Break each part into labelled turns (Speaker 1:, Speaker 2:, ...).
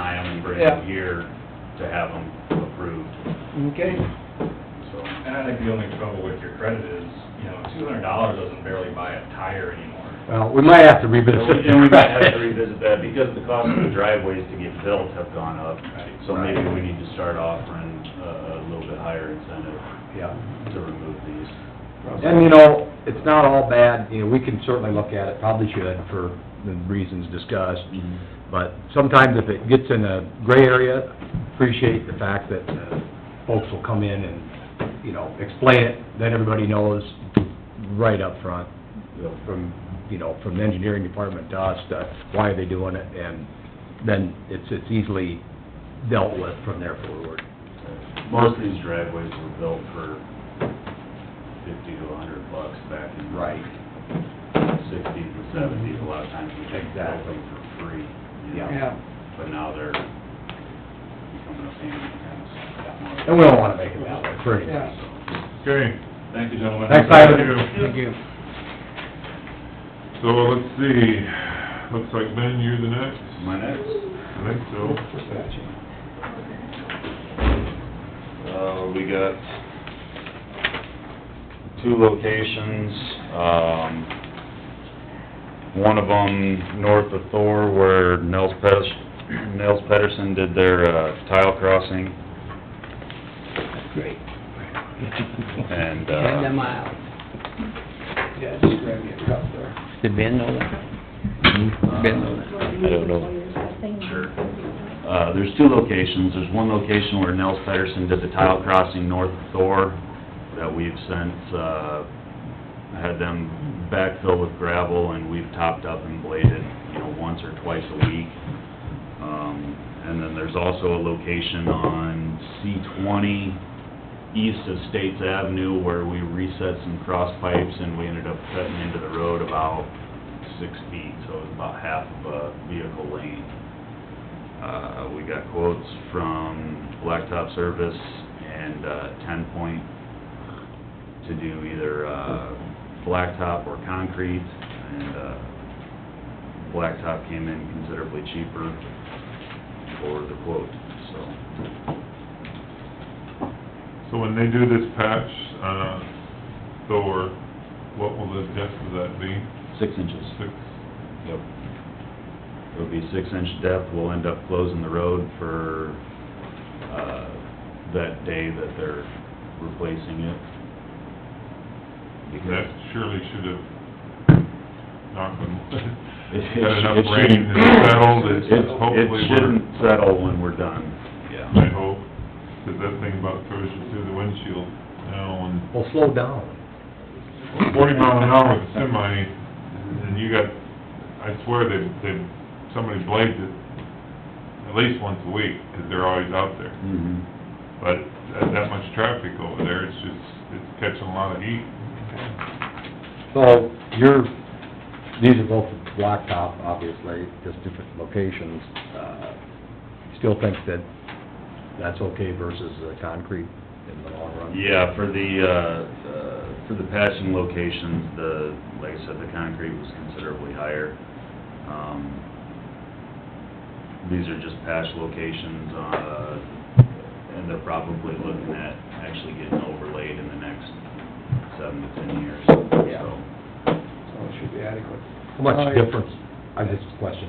Speaker 1: later
Speaker 2: Yeah.
Speaker 1: in the year to have them approved,
Speaker 2: Okay.
Speaker 1: so.
Speaker 3: And I think the only trouble with your credit is, you know, two hundred dollars doesn't barely buy a tire anymore.
Speaker 4: Well, we might have to revisit.
Speaker 1: And we might have to revisit that, because the cost of the driveways to get built have gone up, so maybe we need to start offering a, a little bit higher incentive
Speaker 2: Yeah.
Speaker 1: to remove these.
Speaker 4: And, you know, it's not all bad, you know, we can certainly look at it, probably should for the reasons discussed. But sometimes if it gets in a gray area, appreciate the fact that uh, folks will come in and, you know, explain it, then everybody knows right up front, you know, from, you know, from the engineering department to us, to why are they doing it, and then it's, it's easily dealt with from there forward.
Speaker 1: Most of these driveways were built for fifty to a hundred bucks back in sixties and seventies, a lot of times we take that
Speaker 4: Exactly.
Speaker 1: thing for free. you know,
Speaker 2: Yeah.
Speaker 1: But now they're becoming a pain in the ass.
Speaker 4: And we don't wanna make it that way for any
Speaker 2: Yeah.
Speaker 4: reason.
Speaker 5: Okay,
Speaker 3: Thank you, gentlemen.
Speaker 4: Thanks, Ivan.
Speaker 5: Thank
Speaker 4: you.
Speaker 5: so let's see, looks like Ben, you're the next?
Speaker 1: My next,
Speaker 5: I think so.
Speaker 1: uh, we got two locations, um, one of them north of Thor where Nels Pet- Nels Pedersen did their uh, tile crossing
Speaker 2: Great.
Speaker 1: and,
Speaker 6: And the
Speaker 1: uh,
Speaker 6: miles.
Speaker 2: Yeah, just grab me a cup there.
Speaker 6: Did Ben know that? Ben know that?
Speaker 1: I don't know. Sure. Uh, there's two locations. There's one location where Nels Pedersen did the tile crossing north of Thor that we've since, uh, had them backfill with gravel and we've topped up and bladed, you know, once or twice a week. Um, and then there's also a location on C twenty east of States Avenue where we reset some cross pipes and we ended up cutting into the road about six feet, so it was about half of a vehicle lane. Uh, we got quotes from Blacktop Service and, uh, Ten Point to do either, uh, blacktop or concrete, and, uh, blacktop came in considerably cheaper for the quote, so.
Speaker 5: So when they do this patch, uh, Thor, what will the depth of that be?
Speaker 1: Six inches.
Speaker 5: Six?
Speaker 1: Yep. It'll be six inch depth, we'll end up closing the road for, uh, that day that they're replacing it.
Speaker 5: That
Speaker 1: Because
Speaker 5: surely should have knocked them.
Speaker 1: It- it
Speaker 5: Got
Speaker 1: should-
Speaker 5: enough
Speaker 1: it
Speaker 5: rain
Speaker 1: shouldn't-
Speaker 5: and settled,
Speaker 1: it-
Speaker 5: it's hopefully
Speaker 1: It
Speaker 5: we're,
Speaker 1: shouldn't settle when we're done,
Speaker 5: I
Speaker 1: yeah.
Speaker 5: hope, 'cause that thing about throws you through the windshield now and
Speaker 4: Well, slow down.
Speaker 5: forty mile an hour with a semi, and you got, I swear they, they, somebody blades it at least once a week, 'cause they're always out there.
Speaker 1: Mhm.
Speaker 5: But that, that much traffic over there, it's just, it's catching a lot of heat.
Speaker 4: So, you're, these are both blacktop, obviously, just different locations. Uh, Still think that that's okay versus the concrete in the long run?
Speaker 1: Yeah, for the, uh, uh, for the patching locations, the, like I said, the concrete was considerably higher. Um, These are just patch locations, uh, and they're probably looking at actually getting overlaid in the next seven to ten years,
Speaker 2: Yeah.
Speaker 1: so.
Speaker 2: So it should be adequate.
Speaker 4: How
Speaker 2: Oh,
Speaker 4: much difference, I just a question,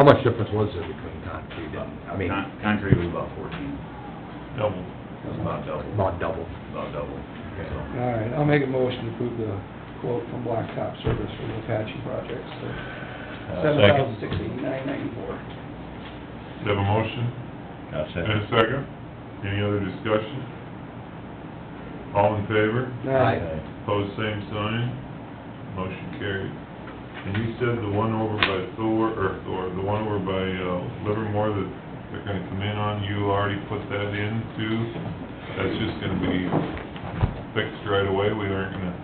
Speaker 4: how much difference was there between concrete and, I mean,
Speaker 1: Con- Concrete was about fourteen,
Speaker 5: Double.
Speaker 1: it was about double,
Speaker 4: about double?
Speaker 1: about double, so.
Speaker 2: All right, I'll make a motion to approve the quote from Blacktop Service for the Apache project, so
Speaker 4: Uh,
Speaker 2: seven thousand six eighty-nine ninety-four.
Speaker 5: Do you have a motion? And a second? Any other discussion? All in favor? Pose same sign, motion carried. And you said the one over by Thor, or Thor, the one over by uh, Livermore that they're gonna come in on, you already put that in too? That's just gonna be fixed right away, we aren't gonna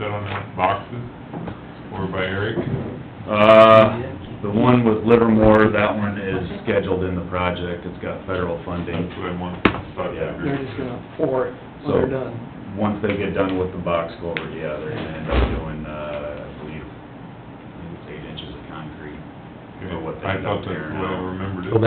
Speaker 5: set on that boxes? Or by Eric?
Speaker 1: Uh, the one with Livermore, that one is scheduled in the project, it's got federal funding.
Speaker 5: That's what I want, thought I
Speaker 1: Yeah.
Speaker 2: They're
Speaker 5: agreed.
Speaker 2: just gonna pour it when they're done.
Speaker 1: Once they get done with the box culvert, yeah, they're gonna end up doing, uh, I believe, I think it's eight inches of concrete.
Speaker 5: Okay.
Speaker 1: Or what they
Speaker 5: I
Speaker 1: end
Speaker 5: thought
Speaker 1: up
Speaker 5: that's
Speaker 1: tearing
Speaker 5: the way I
Speaker 1: out.
Speaker 5: remembered it.
Speaker 4: So